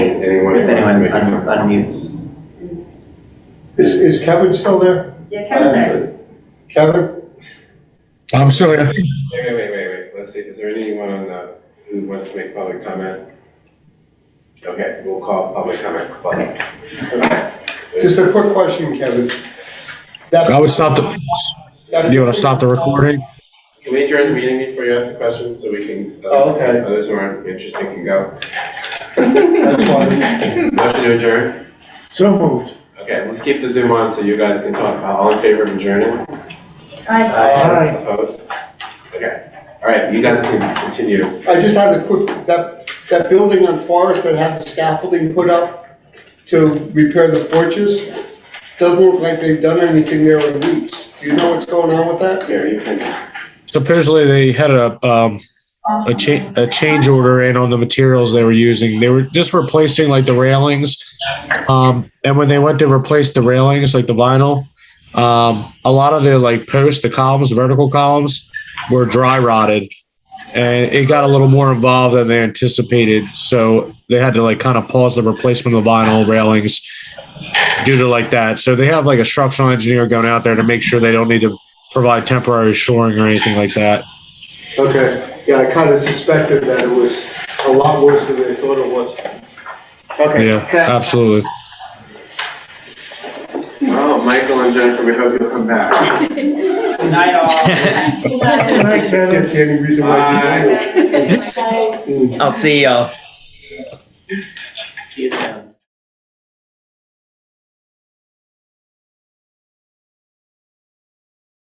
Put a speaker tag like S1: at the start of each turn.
S1: un- unmutes.
S2: Is, is Kevin still there? uh,
S3: Yeah, Kevin's there.
S2: Kevin?
S4: I'm still here.
S5: Wait, wait, wait, wait, wait, let's see, is there anyone on the, who wants to make public comment? Okay, we'll call public comment closed.
S2: Just a quick question, Kevin. That-
S4: I would stop the,
S2: that's-
S4: you want to stop the recording?
S5: Can we adjourn the meeting before you ask the question, so we can, uh,
S2: Oh, okay.
S5: others who aren't interested can go?
S2: That's why.
S5: Motion to adjourn?
S2: So moved.
S5: Okay, let's keep the Zoom on so you guys can talk, Uh, all in favor of adjourning?
S3: Aye.
S2: Aye.
S5: Opposed? Okay, all right, you guys can continue.
S2: I just had a quick, that, that building on Forest that had the scaffolding put up to repair the porches, doesn't look like they've done anything there in weeks. Do you know what's going on with that?
S5: Here, you can,
S4: Supposedly they had a, um, a cha- a change order in on the materials they were using. They were just replacing like the railings. Um, and when they went to replace the railings, like the vinyl, um, a lot of the like posts, the columns, the vertical columns were dry rotted. And it got a little more involved than they anticipated. So they had to like kind of pause the replacement of the vinyl railings due to like that. So they have like a structural engineer going out there to make sure they don't need to provide temporary shoring or anything like that.
S2: Okay, yeah, I kind of suspected that it was a lot worse than they thought it was. Okay.
S4: Yeah, absolutely.
S5: oh, Michael and Jennifer, we hope you'll come back.
S1: Good night, all.
S2: Can't see any reason why.
S1: I'll see y'all. See you soon.